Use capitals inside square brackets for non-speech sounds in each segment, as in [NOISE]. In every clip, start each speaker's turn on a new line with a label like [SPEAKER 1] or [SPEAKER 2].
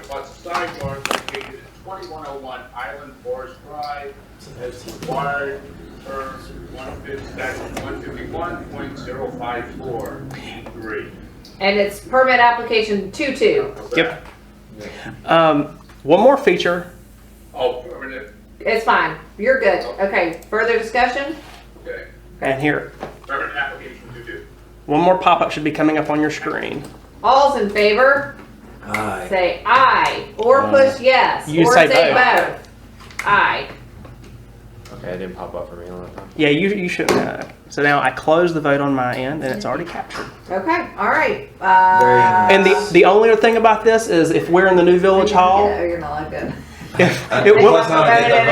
[SPEAKER 1] plus a side yard located at twenty-one oh one Island Forest Drive as required per one fifty, statute one fifty-one point zero five four B three.
[SPEAKER 2] And it's permit application two two.
[SPEAKER 3] Yep. Um, one more feature.
[SPEAKER 1] Oh, permanent,
[SPEAKER 2] It's fine. You're good. Okay, further discussion?
[SPEAKER 1] okay,
[SPEAKER 3] And here,
[SPEAKER 1] permanent application to do.
[SPEAKER 3] one more pop up should be coming up on your screen.
[SPEAKER 2] All's in favor,
[SPEAKER 4] Aye.
[SPEAKER 2] say aye, or push yes,
[SPEAKER 3] You
[SPEAKER 2] or
[SPEAKER 3] say
[SPEAKER 2] say both. Aye.
[SPEAKER 4] Okay, it didn't pop up for me a lot.
[SPEAKER 3] Yeah, you, you shouldn't. Uh, so now I close the vote on my end and it's already captured.
[SPEAKER 2] Okay, all right.
[SPEAKER 4] Very
[SPEAKER 2] Uh,
[SPEAKER 4] nice.
[SPEAKER 3] And the, the only other thing about this is if we're in the new Village Hall, [LAUGHS]
[SPEAKER 2] Yeah, Oh, you're not like that.
[SPEAKER 3] if, it will-
[SPEAKER 4] Let's not get them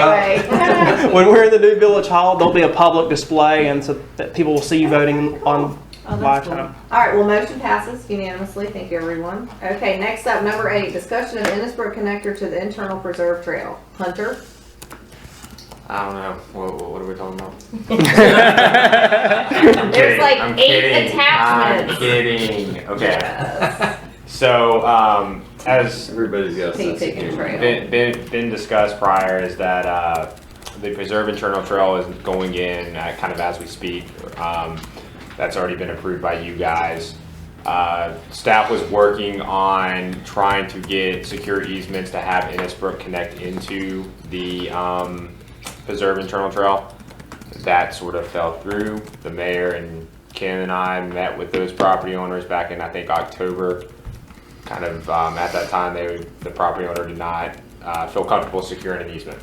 [SPEAKER 4] up.
[SPEAKER 2] Anyway.
[SPEAKER 3] when we're in the new Village Hall, there'll be a public display and so that people will see you voting on
[SPEAKER 2] Oh, that's
[SPEAKER 3] live
[SPEAKER 2] cool.
[SPEAKER 3] time.
[SPEAKER 2] [LAUGHS] All right, well, motion passes unanimously. Thank you, everyone. Okay, next up, number eight, discussion of Innisbrook connector to the internal preserve trail. Hunter?
[SPEAKER 4] I don't know. What, what, what are we talking about?
[SPEAKER 2] There's like
[SPEAKER 4] I'm
[SPEAKER 2] eight
[SPEAKER 4] kidding.
[SPEAKER 2] attachments.
[SPEAKER 4] I'm kidding. Okay. So, um, as
[SPEAKER 5] Everybody's got a
[SPEAKER 2] Can you
[SPEAKER 5] sense of
[SPEAKER 2] take a
[SPEAKER 5] humor.
[SPEAKER 2] trail?
[SPEAKER 4] been, been, been discussed prior, is that uh, the preserve internal trail is going in uh, kind of as we speak. Um, that's already been approved by you guys. Uh, staff was working on trying to get secure easements to have Innisbrook connect into the um, preserve internal trail that sort of fell through. The mayor and Ken and I met with those property owners back in, I think, October. Kind of, um, at that time, they, the property owner did not, uh, feel comfortable securing an easement.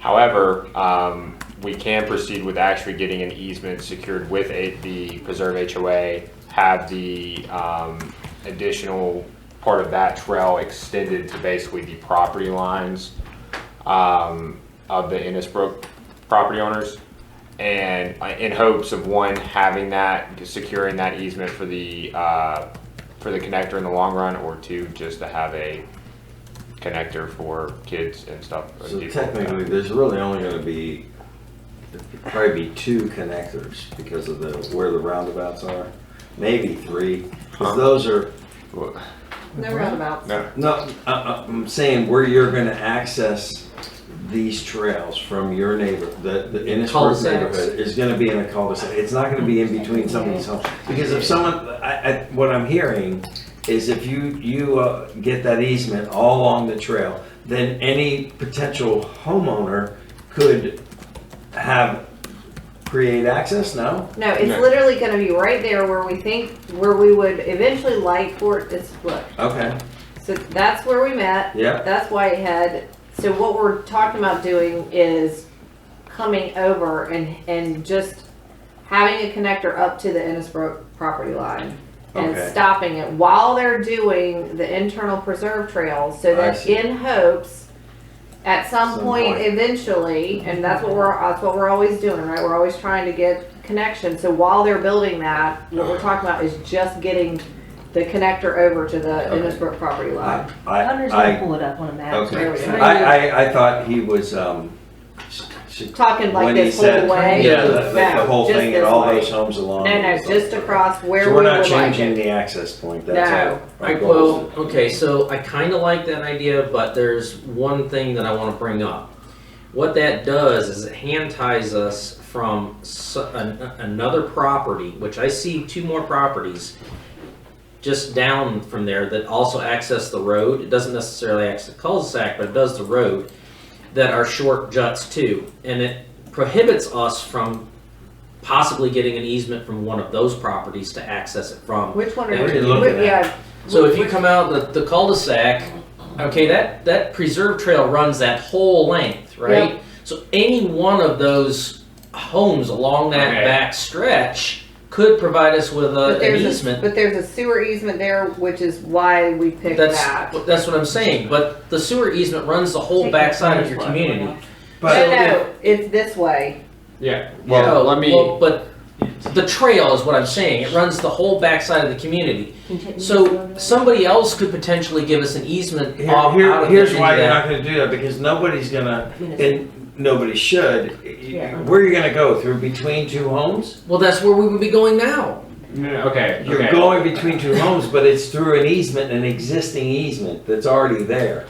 [SPEAKER 4] However, um, we can proceed with actually getting an easement secured with a, the preserve HOA, have the, um, additional part of that trail extended to basically the property lines um, of the Innisbrook property owners. And uh, in hopes of one, having that, securing that easement for the, uh, for the connector in the long run, or two, just to have a connector for kids and stuff. or
[SPEAKER 5] So
[SPEAKER 4] people.
[SPEAKER 5] technically, there's really only gonna be, there'd probably be two connectors because of the, where the roundabouts are. Maybe three, 'cause those are,
[SPEAKER 4] Well,
[SPEAKER 2] No roundabouts.
[SPEAKER 4] No,
[SPEAKER 5] no, uh, uh, I'm saying where you're gonna access these trails from your neighbor, the, the Innisbrook
[SPEAKER 6] Cul-de-sacs.
[SPEAKER 5] neighborhood is gonna be in a cul-de-sac. It's not gonna be in between somebody's homes. Because if someone, I, I, what I'm hearing is if you, you uh, get that easement all along the trail, then any potential homeowner could have, create access, no?
[SPEAKER 2] No, it's
[SPEAKER 4] No.
[SPEAKER 2] literally gonna be right there where we think, where we would eventually like for it to split.
[SPEAKER 5] Okay,
[SPEAKER 2] So that's where we met.
[SPEAKER 5] yeah,
[SPEAKER 2] That's Whitehead. So what we're talking about doing is coming over and, and just having a connector up to the Innisbrook property line and
[SPEAKER 5] Okay.
[SPEAKER 2] stopping it while they're doing the internal preserve trails so
[SPEAKER 5] I
[SPEAKER 2] that
[SPEAKER 5] see.
[SPEAKER 2] in hopes at some
[SPEAKER 5] Some
[SPEAKER 2] point
[SPEAKER 5] point. Mm-hmm.
[SPEAKER 2] eventually, and that's what we're, that's what we're always doing, right? We're always trying to get connection. So while they're building that, what we're talking about is just getting the connector over to the
[SPEAKER 5] Okay.
[SPEAKER 2] Innisbrook property line.
[SPEAKER 5] I, I,
[SPEAKER 7] Hunter's gonna
[SPEAKER 5] I
[SPEAKER 7] pull it up on a map.
[SPEAKER 2] There we
[SPEAKER 5] Okay,
[SPEAKER 2] go.
[SPEAKER 5] I, I, I thought he was, um, s- s-
[SPEAKER 2] talking like
[SPEAKER 5] when he
[SPEAKER 2] this whole
[SPEAKER 5] said,
[SPEAKER 2] way.
[SPEAKER 5] yeah, the,
[SPEAKER 2] No,
[SPEAKER 5] the whole
[SPEAKER 2] just
[SPEAKER 5] thing
[SPEAKER 2] this
[SPEAKER 5] and all
[SPEAKER 2] way.
[SPEAKER 5] those homes along.
[SPEAKER 2] No, no,
[SPEAKER 5] So-
[SPEAKER 2] just across where
[SPEAKER 5] So
[SPEAKER 2] we
[SPEAKER 5] we're
[SPEAKER 2] would
[SPEAKER 5] not
[SPEAKER 2] like
[SPEAKER 5] changing
[SPEAKER 2] it.
[SPEAKER 5] the access point,
[SPEAKER 2] No.
[SPEAKER 5] that's our, our
[SPEAKER 6] Alright,
[SPEAKER 5] goal.
[SPEAKER 6] well, okay, so I kind of like that idea, but there's one thing that I want to bring up. What that does is it hand ties us from s- an- another property, which I see two more properties just down from there that also access the road. It doesn't necessarily access the cul-de-sac, but it does the road that are short juts too. And it prohibits us from possibly getting an easement from one of those properties to access it from.
[SPEAKER 2] Which one are
[SPEAKER 6] Yeah,
[SPEAKER 2] you
[SPEAKER 6] what are
[SPEAKER 5] you looking
[SPEAKER 2] whi- Yeah.
[SPEAKER 6] So if you come out the, the cul-de-sac, okay, that, that preserve trail runs that whole length, right? So any one of those homes along that
[SPEAKER 4] Okay.
[SPEAKER 6] back stretch could provide us with a,
[SPEAKER 2] But
[SPEAKER 6] uh, an
[SPEAKER 2] there's, a,
[SPEAKER 6] easement.
[SPEAKER 2] but there's a sewer easement there, which is why we picked
[SPEAKER 6] that's
[SPEAKER 2] that.
[SPEAKER 6] that's what I'm saying. But the sewer easement runs the whole backside of your community.
[SPEAKER 2] No,
[SPEAKER 5] But,
[SPEAKER 2] no, it's this way.
[SPEAKER 4] yeah, well,
[SPEAKER 6] No,
[SPEAKER 4] let me.
[SPEAKER 6] well, but the trail is what I'm saying. It runs the whole backside of the community. So somebody else could potentially give us an easement
[SPEAKER 5] here,
[SPEAKER 6] off out
[SPEAKER 5] here,
[SPEAKER 6] of
[SPEAKER 5] here's
[SPEAKER 6] the,
[SPEAKER 5] why
[SPEAKER 6] into
[SPEAKER 5] you're
[SPEAKER 6] that.
[SPEAKER 5] not gonna do that, because nobody's gonna, and nobody should.
[SPEAKER 7] Yeah.
[SPEAKER 5] Where are you gonna go, through between two homes?
[SPEAKER 6] Well, that's where we would be going now.
[SPEAKER 4] No, no, okay,
[SPEAKER 5] You're
[SPEAKER 4] okay.
[SPEAKER 5] going between two homes, but it's through an easement, an existing easement that's already there.